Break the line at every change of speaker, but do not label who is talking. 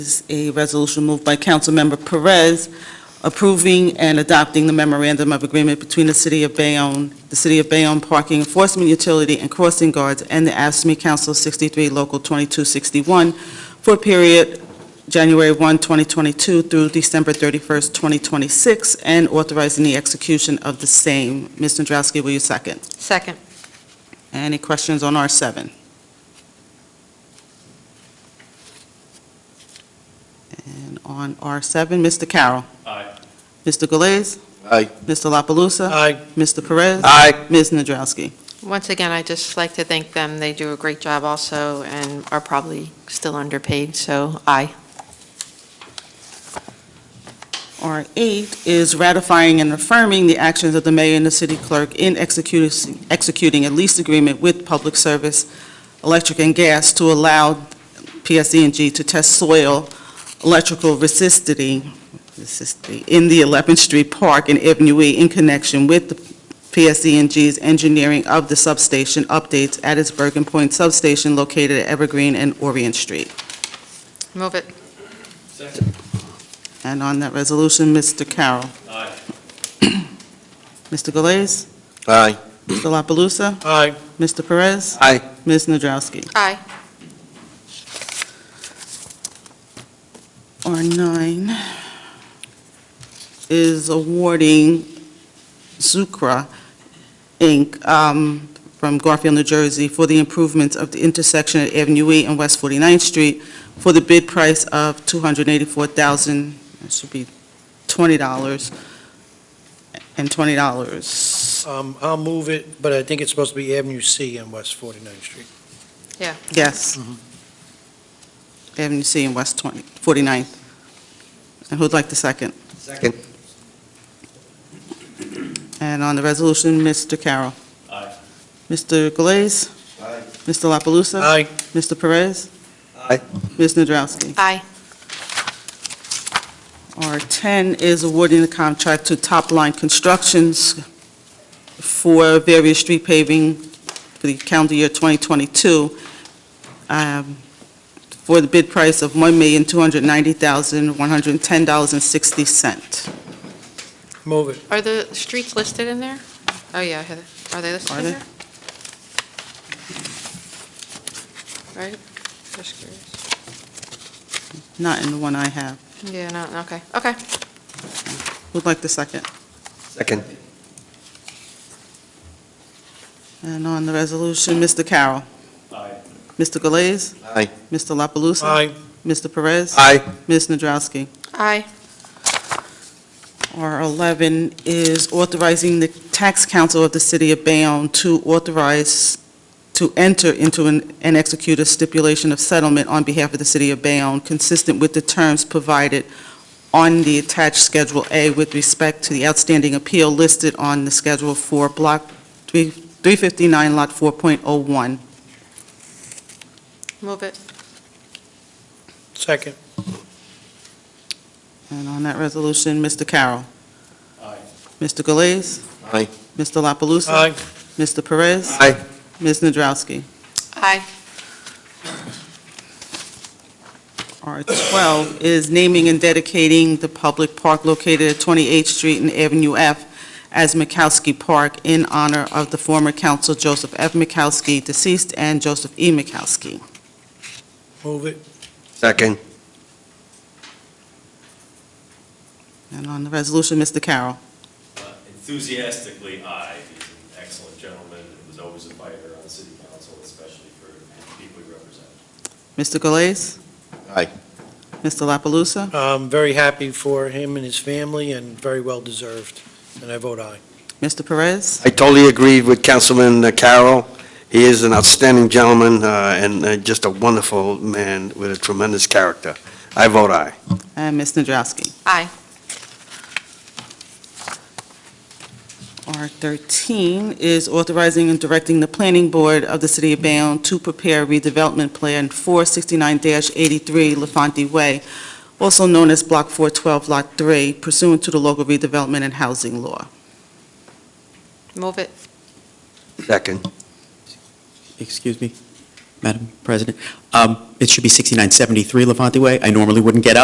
is a resolution moved by Councilmember Perez approving and adopting the memorandum of agreement between the City of Bayonne, the City of Bayonne Parking Enforcement Utility and Crossing Guards, and the ASME Council 63 Local 2261 for a period January 1, 2022 through December 31, 2026, and authorizing the execution of the same. Ms. Nadrowski, will you second?
Second.
Any questions on R7? And on R7, Mr. Carroll.
Aye.
Mr. Galais.
Aye.
Mr. La Palusa.
Aye.
Mr. Perez.
Aye.
Ms. Nadrowski.
Once again, I'd just like to thank them. They do a great job also and are probably still underpaid, so aye.
R8 is ratifying and affirming the actions of the mayor and the city clerk in executing executing a lease agreement with Public Service Electric and Gas to allow PSE&G to test soil electrical resistivity resistivity in the 11th Street Park and Avenue E in connection with the PSE&G's engineering of the substation updates at its Bergen Point substation located at Evergreen and Orient Street.
Move it.
Second.
And on that resolution, Mr. Carroll.
Aye.
Mr. Galais.
Aye.
Mr. La Palusa?
Aye.
Mr. Perez?
Aye.
Ms. Nadrowski?
Aye.
R9 is awarding Zucra, Inc., um, from Garfield, New Jersey, for the improvements of the intersection at Avenue E and West 49th Street for the bid price of $284,000, that should be $20, and $20.
Um, I'll move it, but I think it's supposed to be Avenue C and West 49th Street.
Yes. Avenue C and West 20, 49th. And who'd like the second?
Second.
And on the resolution, Mr. Carroll.
Aye.
Mr. Galais.
Aye.
Mr. La Palusa?
Aye,
Mr. Perez.
Aye.
Ms. Nadrowski.
Aye.
R10 is awarding the contract to Top Line Constructions for various street paving for the calendar year 2022 um, for the bid price of $1,290,110.60.
move it.
Are the streets listed in there? Oh, yeah, Heather. Are they listed
Are
in
they?
there? Right? Just curious.
Not in the one I have.
Yeah, no, okay, okay.
Who'd like the second?
Second.
And on the resolution, Mr. Carroll.
Aye.
Mr. Galais.
Aye.
Mr. La Palusa?
Aye,
Mr. Perez?
Aye.
Ms. Nadrowski?
Aye.
R11 is authorizing the tax council of the city of Bayonne to authorize, to enter into an- and execute a stipulation of settlement on behalf of the city of Bayonne consistent with the terms provided on the attached Schedule A with respect to the outstanding appeal listed on the Schedule 4, Block 3 359, Lot 4.01.
Move it.
second.
And on that resolution, Mr. Carroll.
Aye.
Mr. Galais.
Aye.
Mr. La Palusa?
Aye,
Mr. Perez?
Aye.
Ms. Nadrowski?
Aye.
R12 is naming and dedicating the public park located at 28th Street and Avenue F as Mikowski Park in honor of the former council Joseph F. Mikowski, deceased, and Joseph E. Mikowski.
move it.
Second.
And on the resolution, Mr. Carroll.
Uh, Enthusiastically, aye. He's an excellent gentleman and was always a fighter on the city council, especially for the people he represented.
Mr. Galais?
Aye.
Mr. La Palusa?
I'm very happy for him and his family and very well deserved, and I vote aye.
Mr. Perez?
I totally agree with Councilman Carroll. He is an outstanding gentleman uh, and uh, just a wonderful man with a tremendous character. I vote aye.
And Ms. Nadrowski?
Aye.
R13 is authorizing and directing the planning board of the city of Bayonne to prepare redevelopment plan 469-83 LaFonte Way, also known as Block 412, Lot 3, pursuant to the local redevelopment and housing law.
Move it.
Second.
Excuse me?
Madam President. Um, It should be 6973 Levante Way. I normally wouldn't get up.